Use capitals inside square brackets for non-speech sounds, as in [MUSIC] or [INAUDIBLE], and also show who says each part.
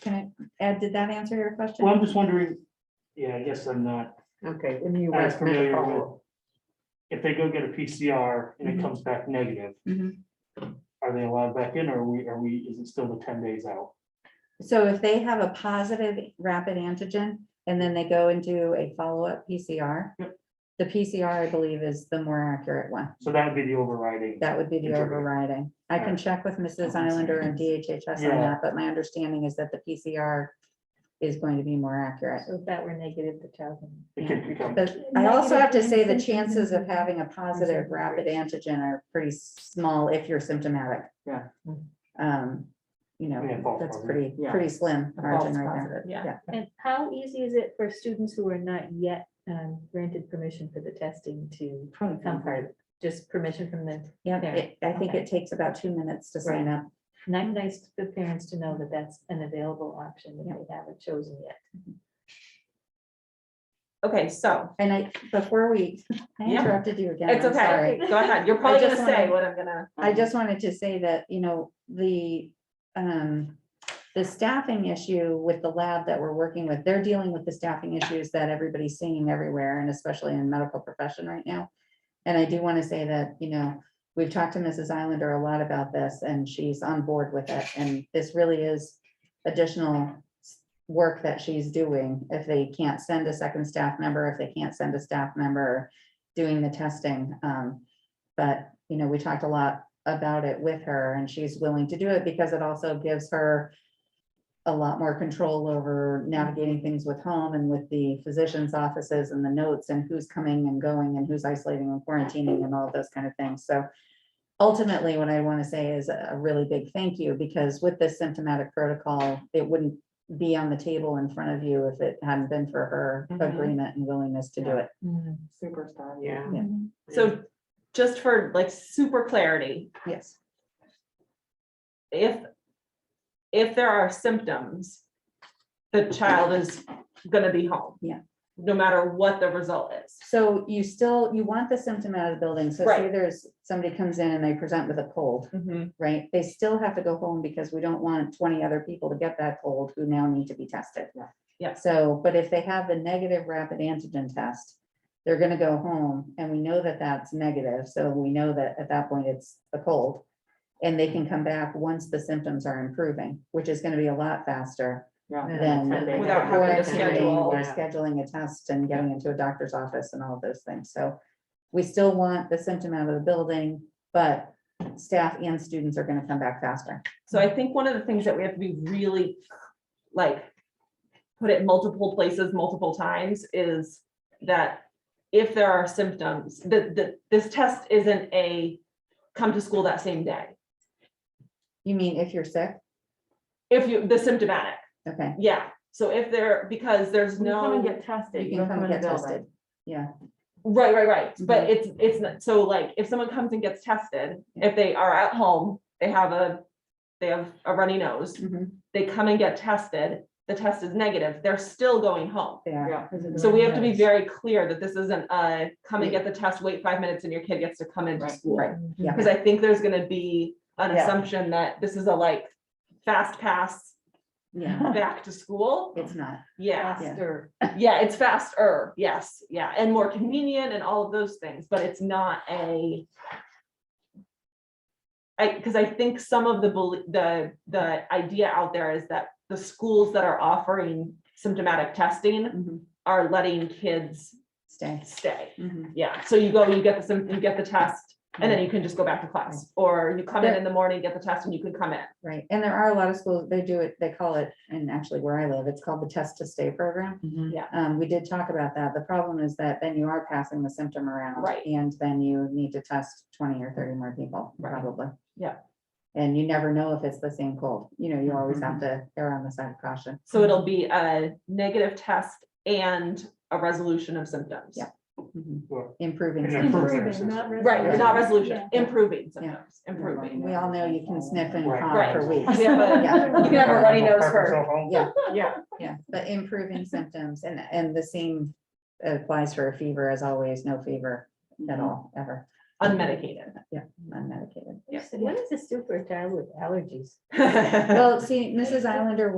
Speaker 1: Can I, Ed, did that answer your question?
Speaker 2: Well, I'm just wondering, yeah, I guess I'm not,
Speaker 3: Okay, then you.
Speaker 2: As
Speaker 3: were-
Speaker 2: familiar with- if they go get a PCR and it comes back negative,
Speaker 1: Mhm.
Speaker 2: are they allowed back in or are we, are we, is it still the ten days out?
Speaker 1: So if they have a positive rapid antigen and then they go and do a follow-up PCR, the PCR, I believe, is the more accurate one.
Speaker 2: So that would be the overriding.
Speaker 1: That would be the
Speaker 2: Interpreter.
Speaker 1: overriding. I can
Speaker 2: Alright.
Speaker 1: check with Mrs. Islander and DHHS on
Speaker 2: Yeah.
Speaker 1: that, but my understanding is that the PCR is going to be more accurate.
Speaker 3: So if that were negative, the child. can-
Speaker 2: It could become,
Speaker 1: But I also have to say the
Speaker 3: Negative and
Speaker 1: chances of
Speaker 3: symptom-
Speaker 1: having a positive rapid antigen are pretty small if you're symptomatic.
Speaker 4: Yeah.
Speaker 1: Um, you
Speaker 2: Yeah,
Speaker 1: know,
Speaker 2: false
Speaker 1: that's
Speaker 2: positive.
Speaker 1: pretty,
Speaker 4: Yeah.
Speaker 1: pretty slim
Speaker 3: A
Speaker 1: margin
Speaker 3: false
Speaker 1: right there.
Speaker 3: positive, yeah. And how easy is it for students who are not yet um, granted permission for the testing to
Speaker 1: Probably
Speaker 3: come part? Just permission from the,
Speaker 1: Yeah,
Speaker 3: There,
Speaker 1: it- I think
Speaker 3: okay.
Speaker 1: it takes about two minutes to sign up.
Speaker 3: and I'm nice for parents to know that that's an available option that they haven't chosen yet.
Speaker 4: Okay, so
Speaker 1: And I, before we, I
Speaker 4: Yeah.
Speaker 1: interrupted you again.
Speaker 4: it's
Speaker 1: I'm sorry. [LAUGHS]
Speaker 4: okay. Go ahead. You're probably
Speaker 1: I just
Speaker 4: gonna say
Speaker 1: wanna-
Speaker 4: what I'm gonna.
Speaker 1: I just wanted to say that, you know, the, um, the staffing issue with the lab that we're working with, they're dealing with the staffing issues that everybody's seeing everywhere and especially in medical profession right now. And I do want to say that, you know, we've talked to Mrs. Islander a lot about this and she's on board with it. And this really is additional s- work that she's doing. If they can't send a second staff member, if they can't send a staff member doing the testing, um, but, you know, we talked a lot about it with her and she's willing to do it because it also gives her a lot more control over navigating things with home and with the physician's offices and the notes and who's coming and going and who's isolating and quarantining and all of those kind of things. So ultimately, what I want to say is a really big thank you because with this symptomatic protocol, it wouldn't be on the table in front of you if it hadn't been for her
Speaker 4: Mhm.
Speaker 1: agreement and willingness to do it.
Speaker 3: Superstar.
Speaker 4: Yeah. So just for like super clarity,
Speaker 1: Yes.
Speaker 4: if, if there are symptoms, the child is gonna be home.
Speaker 1: Yeah.
Speaker 4: No matter what the result is.
Speaker 1: So you still, you want the symptom out of the building, so say
Speaker 4: Right.
Speaker 1: there's, somebody comes in and they present with a cold, right? They still have to go home because we don't want twenty other people to get that cold who now need to be tested.
Speaker 4: Yeah.
Speaker 1: So, but if they have the negative rapid antigen test, they're gonna go home, and we know that that's negative, so we know that at that point it's a cold. And they can come back once the symptoms are improving, which is gonna be a lot faster than.
Speaker 4: Without having
Speaker 1: quarantining
Speaker 4: to schedule.
Speaker 1: Or scheduling a test and getting into a doctor's office and all of those things, so. We still want the symptom out of the building, but staff and students are gonna come back faster.
Speaker 4: So I think one of the things that we have to be really, like, put it multiple places, multiple times, is that if there are symptoms, that, that this test isn't a come to school that same day.
Speaker 1: You mean if you're sick?
Speaker 4: If you, the symptomatic,
Speaker 1: Okay,
Speaker 4: yeah. So if there, because there's no,
Speaker 3: tested.
Speaker 1: you can come get tested. Yeah,
Speaker 4: right, right, right.
Speaker 1: Mhm.
Speaker 4: But it's, it's, not so like, if someone comes and gets tested, if they are at home, they have a, they have a runny nose,
Speaker 1: mhm,
Speaker 4: they come and get tested, the test is negative, they're still going home.
Speaker 1: they are.
Speaker 4: So we have to be very clear that this isn't a come and get the test, wait five minutes and your kid gets to come into
Speaker 2: Right.
Speaker 4: school.
Speaker 1: Right.
Speaker 3: Mm-hmm.
Speaker 1: Yeah.
Speaker 4: [LAUGHS] Because I think there's gonna be an
Speaker 1: Yeah.
Speaker 4: assumption that this is a like fast pass
Speaker 1: Yeah,
Speaker 4: back to school.
Speaker 1: it's not.
Speaker 4: Yeah,
Speaker 3: Faster.
Speaker 4: yeah, it's faster, yes, yeah, and more convenient and all of those things, but it's not a. I, because I think some of the, belie- the, the idea out there is that the schools that are offering symptomatic testing
Speaker 1: Mhm,
Speaker 4: are letting kids
Speaker 1: Stay.
Speaker 4: stay.
Speaker 1: Mhm.
Speaker 4: Yeah, so you go, you get the, sim- you get the test, and then you can just go back to class, or you come in in the morning, get the test, and you can come in.
Speaker 1: Right, and there are a lot of schools, they do it, they call it, and actually where I live, it's called the test to stay program. Um, we did talk about that. The problem is that then you are passing the symptom around.
Speaker 4: Right.
Speaker 1: And then you need to test twenty or thirty more people,
Speaker 4: Right.
Speaker 1: probably.
Speaker 4: Yeah.
Speaker 1: And you never know if it's the same cold. You know, you always have to err on the side of caution.
Speaker 4: Mm-hmm. So it'll be a negative test and a resolution of symptoms.
Speaker 1: Yeah. Mhm.
Speaker 2: Sure.
Speaker 1: Improving.
Speaker 2: And
Speaker 1: symptoms.
Speaker 2: improve-
Speaker 4: Right, not resolution,
Speaker 3: Yeah.
Speaker 4: improving symptoms, improving.
Speaker 1: We all know you can sniff and
Speaker 2: Right.
Speaker 1: cough for
Speaker 4: Right.
Speaker 1: weeks.
Speaker 4: Yeah, but-
Speaker 1: Yeah.
Speaker 3: [LAUGHS]
Speaker 4: You
Speaker 1: [LAUGHS]
Speaker 4: can have a runny nose
Speaker 2: Pop
Speaker 4: first.
Speaker 2: yourself home.
Speaker 1: Yeah,
Speaker 4: Yeah.
Speaker 1: yeah, but improving symptoms and, and the same applies for a fever as always, no fever at all, ever,
Speaker 3: [LAUGHS]
Speaker 4: Unmedicated. [LAUGHS]
Speaker 1: unmedicated.
Speaker 3: What is a superstar with allergies?
Speaker 1: Well, see, Mrs. Islander